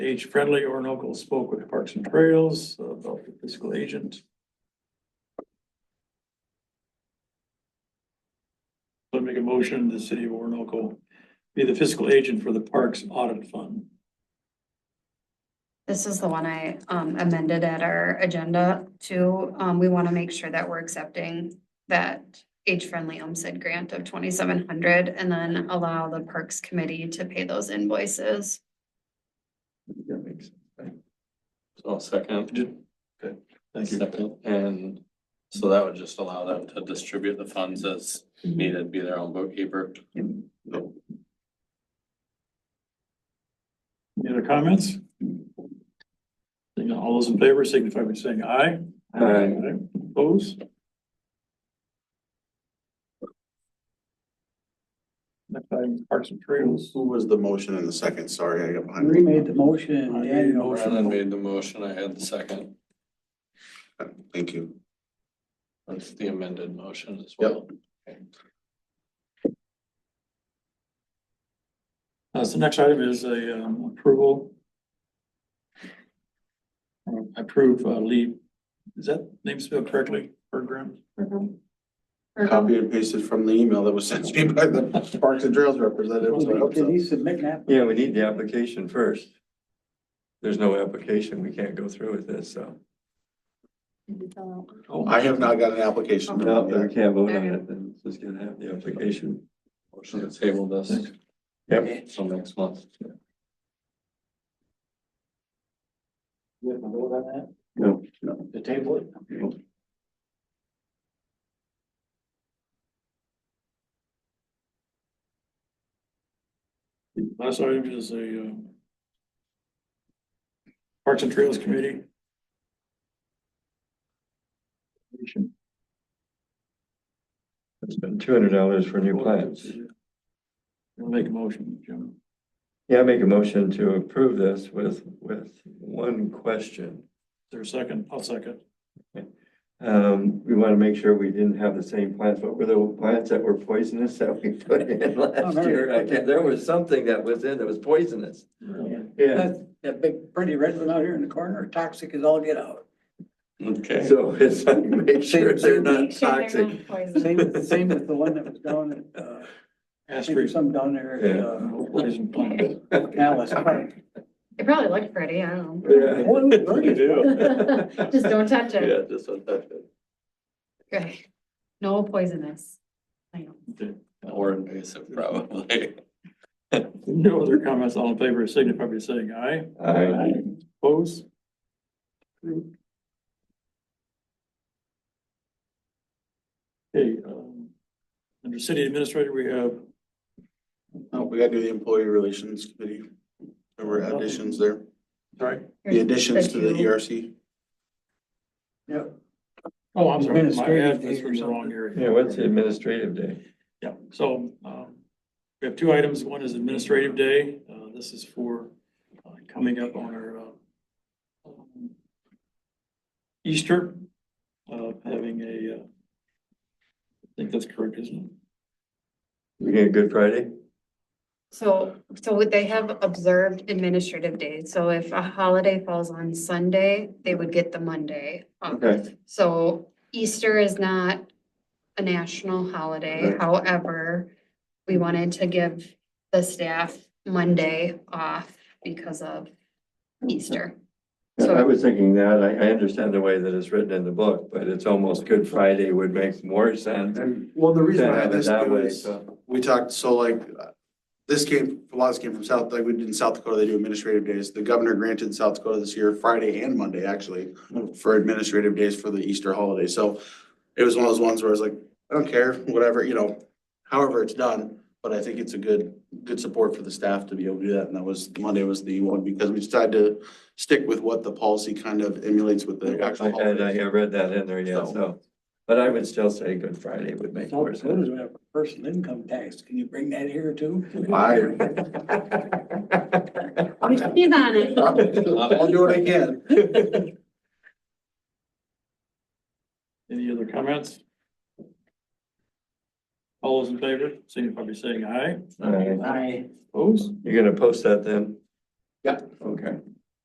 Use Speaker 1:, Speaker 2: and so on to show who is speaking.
Speaker 1: Paige Friendly, Orinoco spoke with Parks and Trails about the fiscal agent. So I make a motion, the city of Orinoco be the fiscal agent for the Parks Audit Fund.
Speaker 2: This is the one I um amended at our agenda to, um, we want to make sure that we're accepting that age-friendly homestead grant of twenty-seven hundred and then allow the Parks Committee to pay those invoices.
Speaker 1: That makes,
Speaker 3: I'll Oh, second,
Speaker 1: okay, thank you.
Speaker 3: second, and so that would just allow them to distribute the funds as needed, be their own bookkeeper.
Speaker 1: Any other comments? Seeing none, All those in favor signify by saying aye.
Speaker 3: Aye.
Speaker 1: Opposed? Next item, Parks and Trails.
Speaker 4: Who was the motion in the second? Sorry, I got behind.
Speaker 5: We made the motion and Dan
Speaker 3: Brandon
Speaker 5: motion.
Speaker 3: made the motion, I had the second,
Speaker 4: Thank you.
Speaker 3: that's the amended motion as well.
Speaker 1: Uh, so next item is a, um, approval. Uh, Approve, uh, Lee, is that name spelled correctly, Bergram?
Speaker 4: Copy and pasted from the email that was sent to me by the Parks and Trails representative. so I hope
Speaker 5: Did
Speaker 4: so.
Speaker 5: he submit an app?
Speaker 6: Yeah, we need the application first. There's no application, we can't go through with this, so.
Speaker 1: Oh,
Speaker 4: I have not got an application.
Speaker 6: No, then we can't vote on it, then it's just gonna have the application.
Speaker 3: Motion to table this
Speaker 6: Yep.
Speaker 3: till next month.
Speaker 5: You have to vote on that?
Speaker 6: No.
Speaker 5: The table it?
Speaker 1: Last item is a, uh, Parks and Trails Committee.
Speaker 6: It's been two hundred dollars for new plants.
Speaker 1: I'll Make a motion, Jim.
Speaker 6: Yeah, I make a motion to approve this with, with one question.
Speaker 1: There's a second, I'll second.
Speaker 6: Um, we want to make sure we didn't have the same plants. What were the plants that were poisonous that we put in last
Speaker 5: very
Speaker 6: year? I can't,
Speaker 5: good.
Speaker 6: there was something that was in that was poisonous. Yeah,
Speaker 5: That, that big pretty red one out here in the corner, toxic as all get out.
Speaker 3: Okay,
Speaker 6: so it's like, make sure they're not
Speaker 2: Make sure they're
Speaker 6: toxic.
Speaker 2: not poisonous.
Speaker 5: Same, same with the one that was down at, uh, I think
Speaker 1: Asterisk.
Speaker 5: some down there at, uh,
Speaker 1: Poison plant.
Speaker 5: Alice Park.
Speaker 2: It probably looked pretty, I don't know.
Speaker 6: Yeah.
Speaker 5: Boy, it was pretty.
Speaker 2: Just don't touch it.
Speaker 3: yeah, just don't touch it,
Speaker 2: Okay. No poisonous. I know.
Speaker 3: or invasive probably.
Speaker 1: No other comments, all in favor, signify by saying aye.
Speaker 6: Aye.
Speaker 1: Oppose? Okay, um, under city administrator, we have
Speaker 4: No, we gotta do the employee relations committee. There were additions there,
Speaker 1: Sorry.
Speaker 4: the additions to the E
Speaker 2: Thank you.
Speaker 4: ERC.
Speaker 5: Yep.
Speaker 1: Oh, I'm sorry, my
Speaker 5: Administrative
Speaker 1: bad, that's
Speaker 5: day or
Speaker 1: from the wrong
Speaker 5: something.
Speaker 1: area.
Speaker 6: Yeah, what's the administrative day?
Speaker 1: Yeah, so, um, we have two items. One is administrative day. Uh, this is for, uh, coming up on our, uh, um, Easter, uh, having a, uh, I think that's correct, isn't
Speaker 6: We get Good Friday?
Speaker 2: So, so would they have observed administrative days? So if a holiday falls on Sunday, they would get the Monday off.
Speaker 6: Okay.
Speaker 2: So Easter is not a national holiday,
Speaker 6: Right.
Speaker 2: however, we wanted to give the staff Monday off because of Easter.
Speaker 6: Yeah, I
Speaker 2: So,
Speaker 6: was thinking that, I, I understand the way that it's written in the book, but it's almost Good Friday would make more sense.
Speaker 4: And, well, the reason
Speaker 6: to
Speaker 4: I
Speaker 6: have
Speaker 4: had
Speaker 6: it
Speaker 4: this
Speaker 6: that
Speaker 4: too
Speaker 6: way,
Speaker 4: is,
Speaker 6: so.
Speaker 4: we talked, so like, uh, this came, a lot of this came from South, like we did in South Dakota, they do administrative days. The governor granted South Dakota this year, Friday and Monday, actually, for administrative days for the Easter holiday. So it was one of those ones where I was like, I don't care, whatever, you know, however it's done. But I think it's a good, good support for the staff to be able to do that. And that was, Monday was the one, because we decided to stick with what the policy kind of emulates with the actual
Speaker 6: I, I,
Speaker 4: holiday.
Speaker 6: I read that in there, yeah,
Speaker 4: So-
Speaker 6: so, but I would still say Good Friday would make
Speaker 5: South
Speaker 6: more sense.
Speaker 5: Dakota's gonna have personal income tax. Can you bring that here too?
Speaker 4: I,
Speaker 2: he's on it.
Speaker 4: I'll do what I can.
Speaker 1: it? Any other comments? All those in favor, signify by saying aye.
Speaker 6: All right.
Speaker 5: I,
Speaker 1: Oppose?
Speaker 6: You're gonna post that then?
Speaker 4: Yeah.
Speaker 6: Okay.